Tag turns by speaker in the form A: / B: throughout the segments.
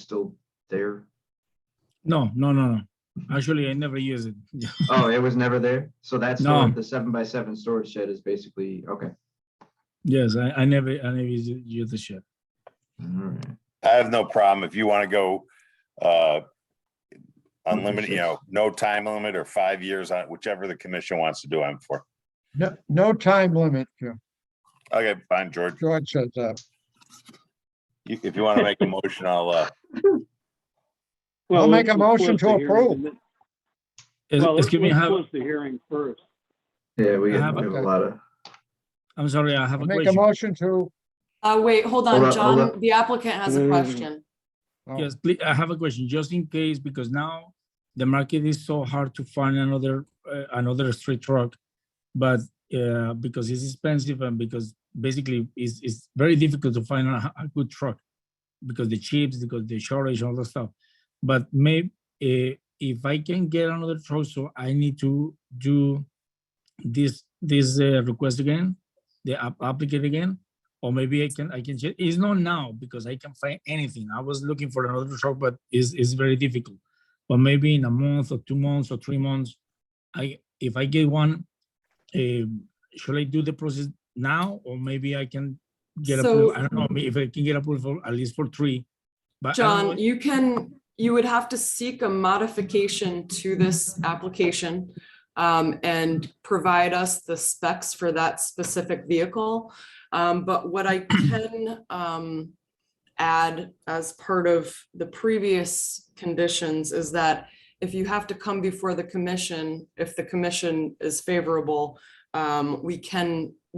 A: still there?
B: No, no, no, no. Actually, I never use it. Yeah.
A: Oh, it was never there? So that's
B: No.
A: the seven by seven storage shed is basically, okay.
B: Yes, I, I never, I never use, it- use the shed.
A: All right.
C: I have no problem if you want to go uh unlimited, you know, no time limit or five years on whichever the commission wants to do, I'm for.
D: No, no time limit, Jim.
C: Okay, fine, George.
D: George says that.
C: You- If you want to make a motion, I'll uh,
D: I'll
E: Well,
D: make a
E: let's- let's
D: motion
E: close
D: to
E: the hearing
D: approve.
E: and then-
B: Es-
E: Well, let's
B: Excuse me, I
E: let's
B: have,
E: Close the hearing first.
A: Yeah, we
B: I
A: have
B: have
A: we
B: a-
A: have a lot of,
B: I'm sorry, I have
D: I'll
B: a
D: Make a
B: question.
D: motion to,
F: Uh, wait, hold
A: Hold
F: on,
A: up, hold
F: John,
A: up.
F: the applicant has
E: No, no,
F: a
E: no, no.
F: question.
D: oh,
B: Yes, please, I have a question, just in case, because now the market is so hard to find another, uh, another street truck. But, uh, because it's expensive and because basically it's, it's very difficult to find a, a good truck. Because the chips, because the shortage, all the stuff. But may, eh, if I can get another truck, so I need to do this, this uh, request again, the app- applicant again? or maybe I can I can check. It's not now because I can find anything. I was looking for another shop, but it's it's very difficult. But maybe in a month or two months or three months, I if I get one, um, should I do the process now or maybe I can get
F: So-
B: approved? I don't know if I can get approved for at least for three. But I don't know
F: John, you can, you would have to seek a modification to this application um, and provide us the specs for that specific vehicle. Um, But what I can um, add as part of the previous conditions is that if you have to come before the commission, if the commission is favorable, um, we can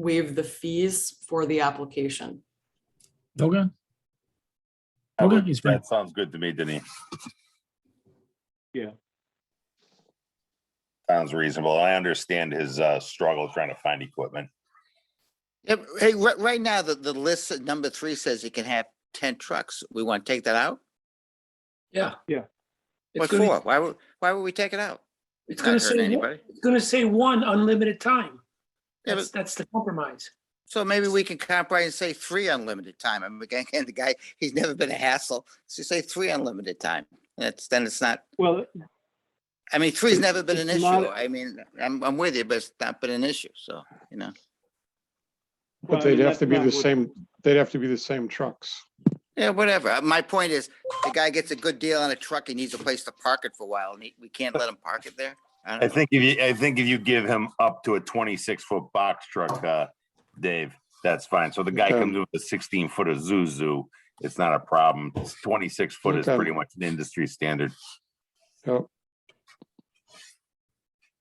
F: waive the fees for the application.
B: Okay.
C: I
B: Okay,
C: would-
B: it's fine.
C: that sounds good to me, Denise.
E: Yeah.
C: Sounds reasonable. I understand his uh struggle trying to find equipment.
G: Yeah, but Hey, right, right now, the, the list at number three says you can have ten trucks. We want to take that out?
H: Yeah.
E: Yeah.
H: It's
G: What
H: gonna-
G: for? Why would, why would we take it out?
H: It's
G: Not
H: gonna
G: hurting
H: say, one-
G: anybody.
H: it's gonna say one unlimited time.
G: Yeah,
H: That's,
G: but,
H: that's the compromise.
G: so maybe we can compromise and say three unlimited time. I'm again, the guy, he's never been a hassle. So say three unlimited time. That's, then it's not,
E: Well,
G: I mean, three's never been an
E: It's
G: issue.
E: not-
G: I mean, I'm, I'm with you, but it's not been an issue. So, you know,
I: But
E: Well, I
I: they'd
B: Uh,
E: mean,
I: have to
E: that's
I: be
E: not
I: the
E: what-
I: same, they'd have to be the same trucks.
G: yeah, whatever. Uh, My point is, the guy gets a good deal on a truck. He needs a place to park it for a while and he, we can't let him park it there. I
C: I
G: don't know.
C: think if you, I think if you give him up to a twenty-six foot box truck, uh, Dave, that's fine. So the guy
I: Okay.
C: comes in with a sixteen foot of Zuzu. It's not a problem. It's Twenty-six foot is
I: Okay.
C: pretty much an industry standard,
I: So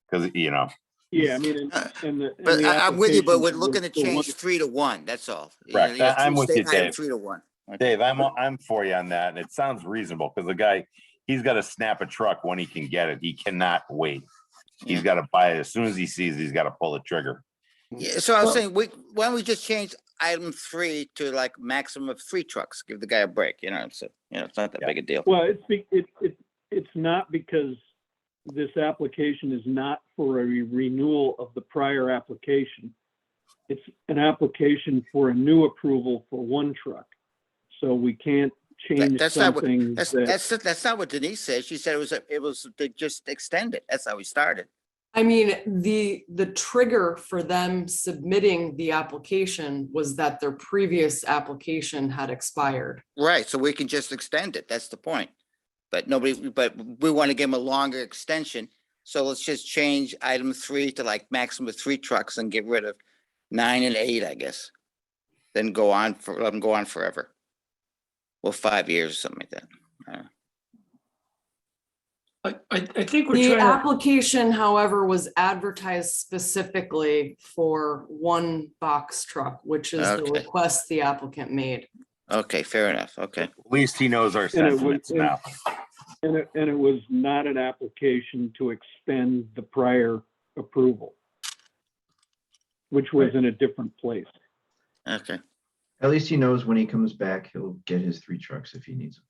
C: because, you know,
E: yeah, I mean, and-
G: Uh,
E: and the. and
G: But
E: the
G: I, I'm with you, but
E: application
G: we're looking to
E: was the one-
G: change three to one, that's all. You know,
C: Correct.
G: you have
C: I- I'm
G: three
C: with you,
G: state highway,
C: Dave.
G: Three to one.
C: Dave, I'm, I'm for you on that, and it sounds reasonable, because the guy, he's gotta snap a truck when he can get it. He cannot wait. He's
G: Yeah.
C: gotta buy it. As soon as he sees, it, he's gotta pull the trigger. Mm-hmm.
G: Yeah, so I was
H: Well-
G: saying, we, why don't we just change item three to like maximum of three trucks, give the guy a break, you know, so, you know, it's not that
C: Yeah.
G: big a deal.
E: Well, it's, be- it, it, it's not because this application is not for a renewal of the prior application. It's an application for a new approval for one truck. So we can't change
G: that's not what-
E: something
G: That's,
E: that,
G: that's, that's not what Denise said, she said it was, a- it was to just extend it, that's how we started.
F: I mean, the, the trigger for them submitting the application was that their previous application had expired.
G: Right, so we can just extend it, that's the point. But nobody, but we want to give them a longer extension, so let's just change item three to like maximum of three trucks and get rid of nine and eight, I guess. Then go on for, let them go on forever. Well, five years or something like that.
H: I, I, I think
F: The
H: we're trying, to-
F: application, however, was advertised specifically for one box truck, which is the
G: Okay.
F: request the applicant made.
G: Okay, fair enough, okay.
C: At least he knows our
E: it would-
C: sentiments now.
E: and it, and it was not an application to extend the prior approval, which was in a different place.
G: Okay,
A: at least he knows when he comes back, he'll get his three trucks if he needs them.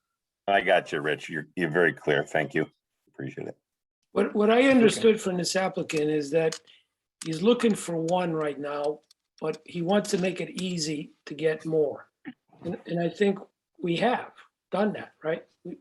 C: I got you, Rich. You're, you're very clear. Thank you. Appreciate it.
H: what, what I understood from this applicant is that he's looking for one right now, but he wants to make it easy to get more. And, and I think we have. done that, right? We-